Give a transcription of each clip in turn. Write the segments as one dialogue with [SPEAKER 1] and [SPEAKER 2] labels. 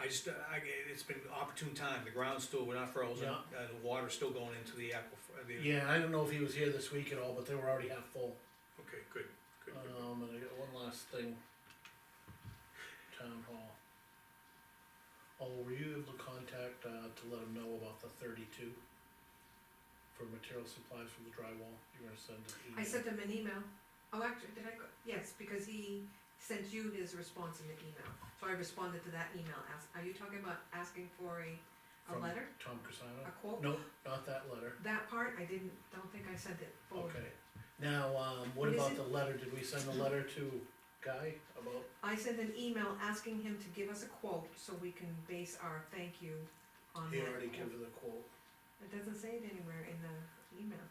[SPEAKER 1] I just, I, it's been opportune time, the ground's still, we're not frozen,
[SPEAKER 2] Yeah.
[SPEAKER 1] uh, the water's still going into the aquifer, uh, the,
[SPEAKER 2] Yeah, I don't know if he was here this week at all, but they were already half full.
[SPEAKER 1] okay, good, good, good.
[SPEAKER 2] Um, and I got one last thing. Town hall. Oh, were you able to contact, uh, to let him know about the thirty-two? For material supplies for the drywall, you were gonna send an email?
[SPEAKER 3] I sent him an email, oh, actually, did I go, yes, because he sent you his response in the email, so I responded to that email, ask, are you talking about asking for a, a
[SPEAKER 2] From
[SPEAKER 3] letter,
[SPEAKER 2] Tom
[SPEAKER 3] a
[SPEAKER 2] Casano?
[SPEAKER 3] quote?
[SPEAKER 2] No, not that letter,
[SPEAKER 3] That part, I didn't, don't think I sent it forward.
[SPEAKER 2] okay. Now, um, what
[SPEAKER 3] Oh. What is
[SPEAKER 2] about
[SPEAKER 3] it?
[SPEAKER 2] the letter, did we send a letter to Guy about,
[SPEAKER 3] I sent an email asking him to give us a quote, so we can base our thank you on that.
[SPEAKER 2] he already
[SPEAKER 3] quote.
[SPEAKER 2] gave her the quote?
[SPEAKER 3] It doesn't say it anywhere in the email,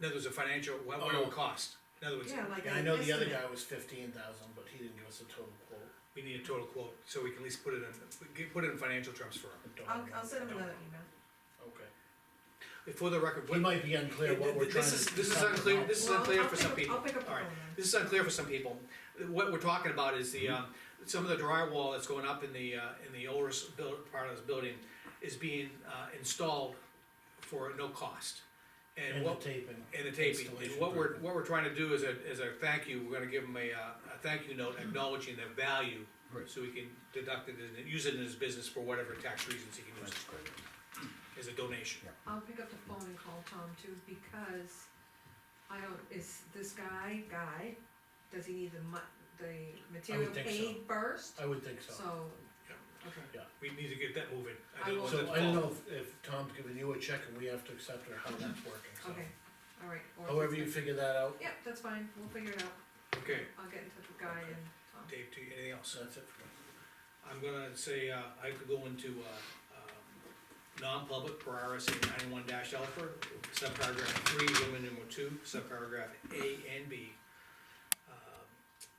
[SPEAKER 1] In other words, a financial, what, what it
[SPEAKER 2] Oh.
[SPEAKER 1] would cost, in other words,
[SPEAKER 3] yeah, like
[SPEAKER 2] Yeah,
[SPEAKER 3] an
[SPEAKER 2] I know the other
[SPEAKER 3] estimate.
[SPEAKER 2] guy was fifteen thousand, but he didn't give us a total quote.
[SPEAKER 1] we need a total quote, so we can at least put it in, get- put it in financial terms for him.
[SPEAKER 2] I don't
[SPEAKER 3] I'll,
[SPEAKER 2] know.
[SPEAKER 3] I'll send him
[SPEAKER 2] Don't-
[SPEAKER 3] another email.
[SPEAKER 2] Okay.
[SPEAKER 1] For the record,
[SPEAKER 2] We
[SPEAKER 1] what-
[SPEAKER 2] might be unclear what we're trying to.
[SPEAKER 1] this is, this is
[SPEAKER 2] talk
[SPEAKER 1] unclear,
[SPEAKER 2] about.
[SPEAKER 1] this is
[SPEAKER 3] Well,
[SPEAKER 1] unclear
[SPEAKER 3] I'll
[SPEAKER 1] for
[SPEAKER 3] pick
[SPEAKER 1] some
[SPEAKER 3] up-
[SPEAKER 1] people.
[SPEAKER 3] I'll pick up the
[SPEAKER 1] All right.
[SPEAKER 3] phone then.
[SPEAKER 1] This is unclear for some people. What we're talking about is
[SPEAKER 2] Hmm.
[SPEAKER 1] the, um, some of the drywall that's going up in the, uh, in the oldest build, part of this building is being, uh, installed for no cost. And
[SPEAKER 2] And the
[SPEAKER 1] what,
[SPEAKER 2] taping.
[SPEAKER 1] and the taping, and
[SPEAKER 2] installation
[SPEAKER 1] what we're,
[SPEAKER 2] part.
[SPEAKER 1] what we're trying to do is a, is a thank you, we're gonna give him a, uh, a thank you note acknowledging the value.
[SPEAKER 4] Right.
[SPEAKER 1] So he can deduct it and use it in his business for whatever tax reasons he can use
[SPEAKER 4] That's great.
[SPEAKER 1] it, as a donation.
[SPEAKER 3] I'll pick up the phone and call Tom too, because I don't, is this guy, guy, does he need the mu- the material
[SPEAKER 2] think
[SPEAKER 3] paid
[SPEAKER 2] so.
[SPEAKER 3] first?
[SPEAKER 2] I would think
[SPEAKER 3] So,
[SPEAKER 2] so.
[SPEAKER 3] okay,
[SPEAKER 1] We need to get that moving.
[SPEAKER 3] I
[SPEAKER 1] don't
[SPEAKER 3] will-
[SPEAKER 1] want that
[SPEAKER 2] So
[SPEAKER 1] to
[SPEAKER 2] I don't
[SPEAKER 1] fall.
[SPEAKER 2] know if, if Tom's giving you a check and we have to accept it or how that's working, so.
[SPEAKER 3] okay, all right. or if
[SPEAKER 2] However
[SPEAKER 3] it's
[SPEAKER 2] you
[SPEAKER 3] like-
[SPEAKER 2] figure that out,
[SPEAKER 3] Yep, that's fine, we'll figure it out,
[SPEAKER 1] Okay,
[SPEAKER 3] I'll get in touch with Guy
[SPEAKER 2] Okay.
[SPEAKER 3] and Tom.
[SPEAKER 1] Dave, do you, anything else?
[SPEAKER 2] so that's it for me.
[SPEAKER 1] I'm gonna say, uh, I could go into, uh, um, non-public per RSA ninety-one dash alpha, subparagraph three, women number two, subparagraph A and B, Uh,